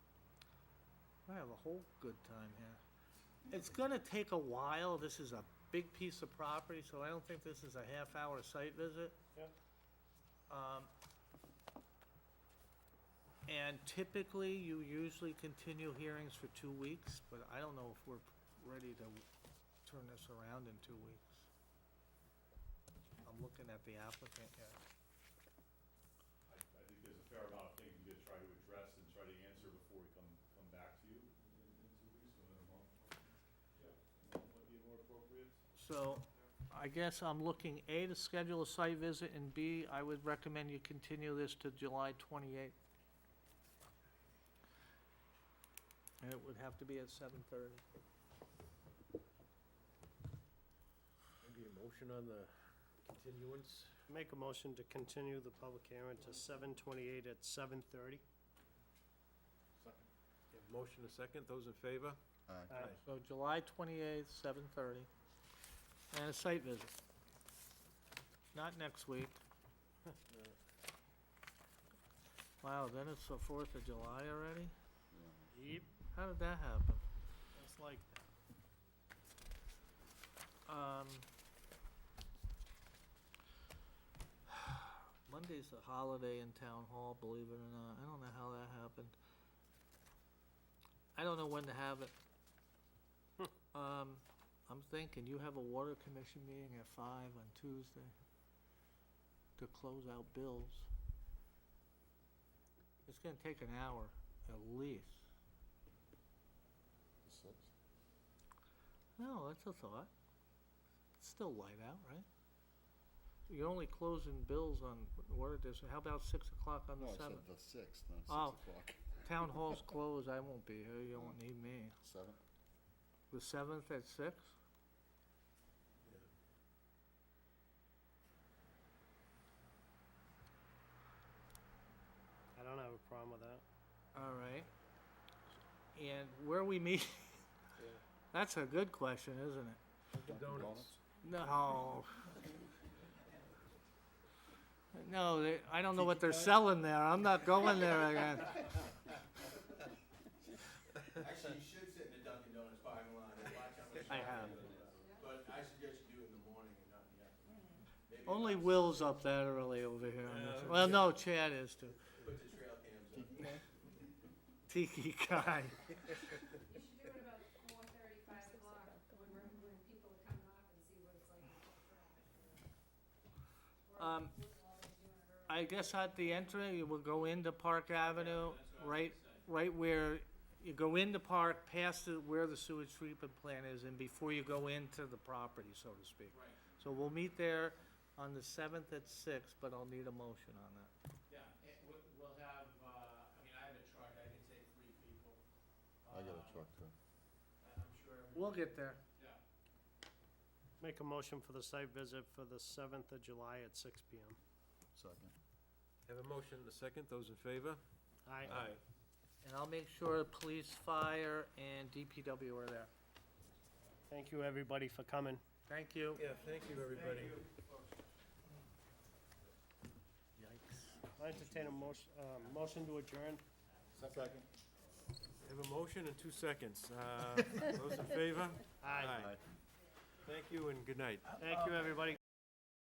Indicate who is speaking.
Speaker 1: I have a whole good time here. It's gonna take a while, this is a big piece of property, so I don't think this is a half-hour site visit.
Speaker 2: Yeah.
Speaker 1: Um, and typically, you usually continue hearings for two weeks, but I don't know if we're ready to turn this around in two weeks. I'm looking at the applicant here.
Speaker 2: I, I think there's a fair amount of things we could try to address and try to answer before we come, come back to you in, in two weeks, or in a month. Yeah, a month might be more appropriate.
Speaker 1: So, I guess I'm looking, A, to schedule a site visit, and B, I would recommend you continue this to July twenty-eighth. And it would have to be at seven thirty.
Speaker 3: Maybe a motion on the continuance?
Speaker 4: Make a motion to continue the public hearing to seven twenty-eight at seven thirty.
Speaker 2: Second.
Speaker 3: You have a Motion a second, those in favor?
Speaker 1: So July twenty-eighth, seven thirty, and a site visit. Not next week. Wow, then it's the Fourth of July already?
Speaker 4: Yep,
Speaker 1: How did that happen?
Speaker 4: that's like,
Speaker 1: Um, Monday's a holiday in town hall, believe it or not. I don't know how that happened. I don't know when to have it. Um, I'm thinking you have a water commission meeting at five on Tuesday to close out bills. It's gonna take an hour at least. No, that's a thought. It's still light out, right? You're only closing bills on, what it is, how about six o'clock on
Speaker 5: No,
Speaker 1: the
Speaker 5: I said
Speaker 1: seventh?
Speaker 5: the sixth, not six
Speaker 1: Oh.
Speaker 5: o'clock.
Speaker 1: Town hall's closed, I won't be here, you won't need me.
Speaker 5: Seven?
Speaker 1: The seventh at six?
Speaker 4: I don't have a problem with that.
Speaker 1: All right. And where we meet? That's a good question, isn't it? Oh.
Speaker 3: Donuts.
Speaker 1: No. No, they, I don't know what they're
Speaker 4: Tiki Tots?
Speaker 1: selling there, I'm not going there again.
Speaker 6: Actually, you should sit in the Dunkin' Donuts parking lot and watch how much.
Speaker 1: I
Speaker 6: traffic
Speaker 1: have.
Speaker 6: there is. But I suggest you do it in the morning and not in the afternoon. Maybe
Speaker 1: Only
Speaker 6: not
Speaker 1: Will's up that early over here. on this- Well, no, Chad is too.
Speaker 6: Put the trail cams up.
Speaker 1: Tiki guy.
Speaker 7: You should do it about four thirty, five o'clock, when we're, when people are coming off and see what it's like in foot traffic. Or do
Speaker 1: Um,
Speaker 7: it while they're doing it early.
Speaker 1: I guess at the entry, you will go into Park Avenue, right, right where, you go into Park, past the, where the sewage treatment plant is, and before you go into the property, so to speak.
Speaker 6: Right,
Speaker 1: So we'll meet there on the seventh at six, but I'll need a motion on that.
Speaker 8: Yeah, it, we- we'll have, uh, I mean, I have a truck, I can take three people.
Speaker 5: I got a
Speaker 8: Um,
Speaker 5: truck too.
Speaker 6: Uh,
Speaker 8: I- I'm sure, every-
Speaker 1: We'll get there.
Speaker 8: yeah.
Speaker 4: Make a motion for the site visit for the seventh of July at six P M.
Speaker 5: Second.
Speaker 3: Have a motion and a second, those in favor?
Speaker 4: Aye.
Speaker 1: And I'll make sure police, fire, and DPW are there.
Speaker 4: Thank you, everybody, for coming.
Speaker 1: Thank you.
Speaker 3: Yeah, thank you, everybody.
Speaker 1: Yikes.
Speaker 4: I entertain a motion, uh, motion to adjourn.
Speaker 5: Second.
Speaker 3: Have a motion in two seconds, uh, those in favor?
Speaker 4: Aye.
Speaker 3: Thank you and good night.
Speaker 4: Thank you, everybody.